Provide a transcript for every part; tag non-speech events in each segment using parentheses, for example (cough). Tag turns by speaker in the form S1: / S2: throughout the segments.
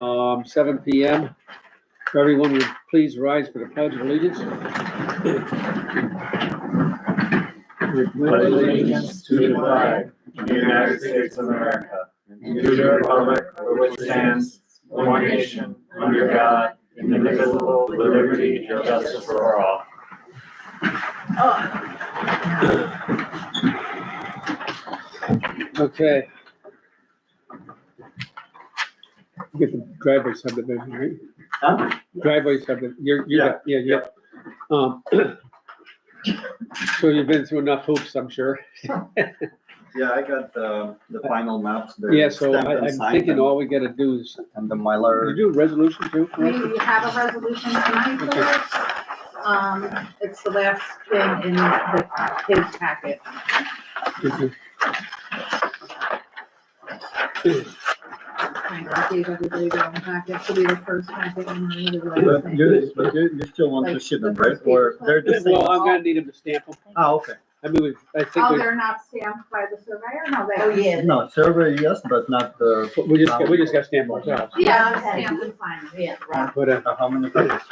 S1: um, seven P M. Everyone would please rise for the pledge of allegiance.
S2: pledge allegiance to the flag of the United States of America and to the republic for which it stands one nation, under God, indivisible, with liberty and justice for all.
S1: Okay. You Get the driveway subdivision, right?
S2: Huh?
S1: Driveway subdivision, you're, you're, yeah, yeah. Um, So you've been through enough hoops, I'm sure.
S3: Yeah, I got the, the final maps. there.
S1: Yeah, so
S3: Stamped
S1: I,
S3: and
S1: I'm
S3: signed
S1: thinking
S3: and-
S1: all we gotta do is,
S3: And the
S1: did
S3: Mylar,
S1: you do a resolution too? for us?
S4: We have a resolution tonight for this. Um, it's the last thing in the, his packet.
S1: Okay.
S4: I gave everybody their own packet, so we were first packet and then we were last
S3: but
S4: thing.
S3: you, but you, you still want to
S4: Like,
S3: ship them,
S4: the
S3: right?
S4: first
S3: Or
S4: page.
S3: they're the same?
S1: Well, I'm gonna need him to stamp them.
S3: Ah, okay.
S1: I mean, we- I think
S4: Oh,
S1: we,
S4: they're not stamped by the surveyor? No, they.
S5: Oh, yeah.
S3: No, survey, yes, but not the,
S1: we just, got- we just gotta stamp ourselves,
S4: Yeah, stamped and signed.
S5: Yeah, right.
S1: but, uh,
S3: uh, how many pages?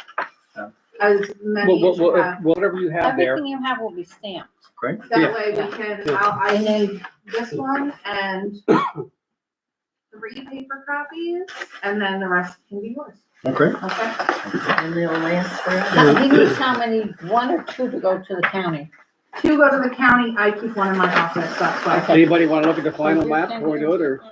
S4: As many
S1: well,
S4: as
S1: well,
S4: you
S1: well,
S4: have.
S1: if- whatever you have there,
S6: Everything you have will be stamped.
S1: yeah.
S4: That way we can,
S1: Yeah.
S4: I'll, I
S6: And then-
S4: need this one and three paper copies, and then the rest can be yours.
S3: Okay.
S4: Okay?
S5: And they'll last forever.
S1: (coughs)
S6: He needs (coughs) how many, one or two to go to the county?
S4: Two go to the county, I keep one in my office, that's why.
S1: anybody wanna look at the final map before we do it, or?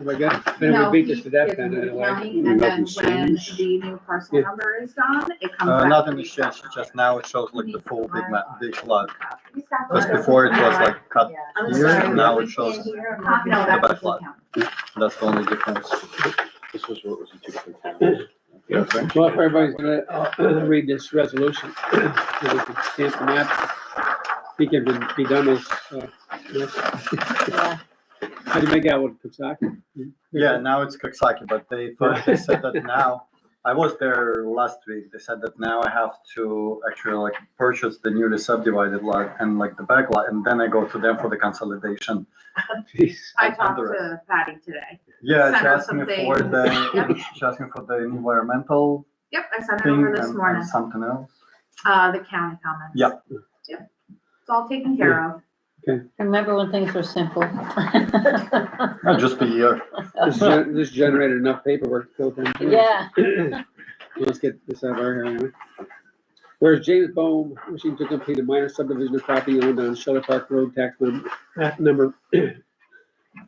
S1: Oh my God, then
S4: No,
S1: we beat this
S4: he
S1: to death
S4: gives
S1: then,
S4: me the
S1: anyway.
S4: county, And then when the new parcel
S1: Yeah.
S4: number is done, it comes
S3: Uh,
S4: back.
S3: nothing
S4: to
S3: has
S4: me.
S3: changed, just now it shows like the full big map, big lot.
S4: He's got
S3: Because
S4: the-
S3: before it was like cut,
S4: I'm
S3: Here's
S4: sorry.
S3: now it
S4: Uh,
S3: shows
S4: No,
S3: bad
S4: that doesn't
S3: lot.
S4: count.
S3: that's the only difference.
S7: This was what was in two different towns.
S1: Well, if everybody's gonna, uh, read this resolution, (clears throat) then we can stamp the map. He can be- be done as, uh, yes.
S6: Yeah.
S1: how do you make out with Kutzaki?
S3: Yeah, now it's Coxsackie, but (laughs) they first they said that now, I was there last week, they said that now I have to actually like purchase the newly subdivided lot and like the back lot, and then I go to them for the consolidation.
S1: Jeez.
S4: I talked to Patty today.
S3: Yeah,
S4: Send
S3: she
S4: out
S3: asked me
S4: some
S3: for the,
S4: (laughs) things.
S3: she asked me for the environmental
S4: Yep, I sent it
S3: thing
S4: over
S3: and
S4: this
S3: and
S4: morning,
S3: something else.
S4: uh, the county comments.
S3: Yeah.
S4: Yep, it's all taken care of.
S6: Remember when things
S1: (laughs)
S6: were simple? (laughs)
S3: Uh, Just a year.
S1: This gen- this generated enough paperwork to go through.
S6: Yeah,
S1: (coughs) Let's get this out of our hair anyway. Whereas James Bohm wishing to complete a minor subdivision of property owned on Shelter Park Road, tax num- map number (coughs)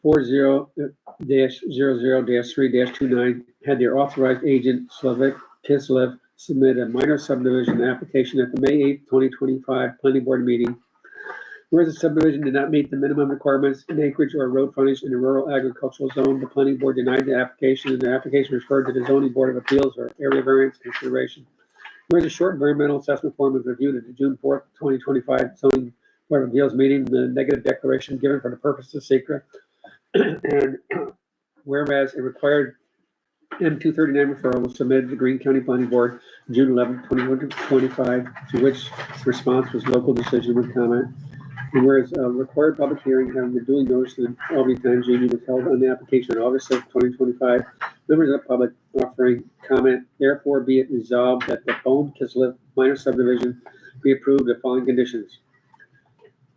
S1: four zero uh, dash zero zero dash three dash two nine, had their authorized agent Slavik Kislev submit a minor subdivision application at the May eighth, twenty twenty-five planning board meeting. Whereas the subdivision did not meet the minimum requirements in acreage or road frontage in a rural agricultural zone, the planning board denied the application and the application referred to the zoning board of appeals or area variance consideration. Whereas the short environmental assessment form was reviewed at the June fourth, twenty twenty-five zoning board of appeals meeting, the negative declaration given for the purpose of secret. (clears throat) And (clears throat) whereas it required M two thirty-nine referral was submitted to the Green County Planning Board, June eleventh, twenty twenty-five, to which response was local decision with comment. And whereas uh, required public hearing having been duly noticed in the Albany Times Union was held on the application on August sixth, twenty twenty-five, members of the public offering comment, therefore be it resolved that the Bohm Kislev minor subdivision be approved the following conditions.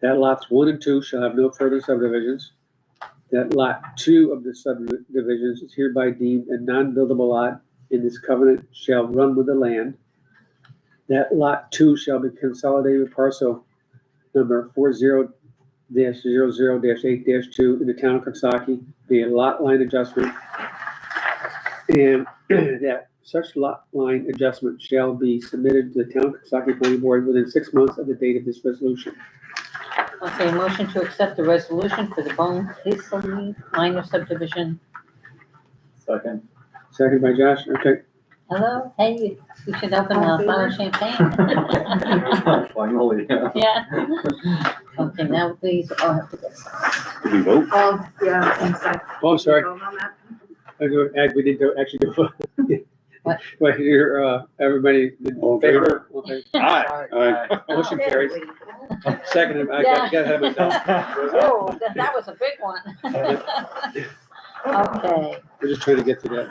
S1: That lots one and two shall have no further subdivisions. That lot two of the subdivisions is hereby deemed a non-buildable lot, and this covenant shall run with the land. That lot two shall be consolidated with parcel number four zero dash zero zero dash eight dash two in the town of Coxsackie, be a lot line adjustment. And (clears throat) that such lot line adjustment shall be submitted to the town of Coxsackie planning board within six months of the date of this resolution.
S6: okay, motion to accept the resolution for the Bone Hazelmead minor subdivision.
S3: (laughs) Second.
S1: Second by Josh, okay.
S6: Hello, hey, you should open a bottle of champagne. (laughs)
S3: Finally, yeah.
S6: Yeah. Okay, now please, oh, all have to get signed.
S7: Did we vote?
S4: All, yeah, things like.
S1: Oh, I'm sorry,
S4: Vote on that.
S1: I do, act- we didn't do- actually do. (laughs)
S6: What?
S1: But here, uh, everybody
S7: All
S1: in
S7: in favor?
S1: favor? Okay.
S7: Aye. Aye.
S1: Motion carries, second, I
S6: Yeah.
S1: got, got ahead of myself.
S2: (laughs)
S1: (laughs)
S6: Oh, that that was a big one. (laughs) Okay,
S1: We're just trying to get to that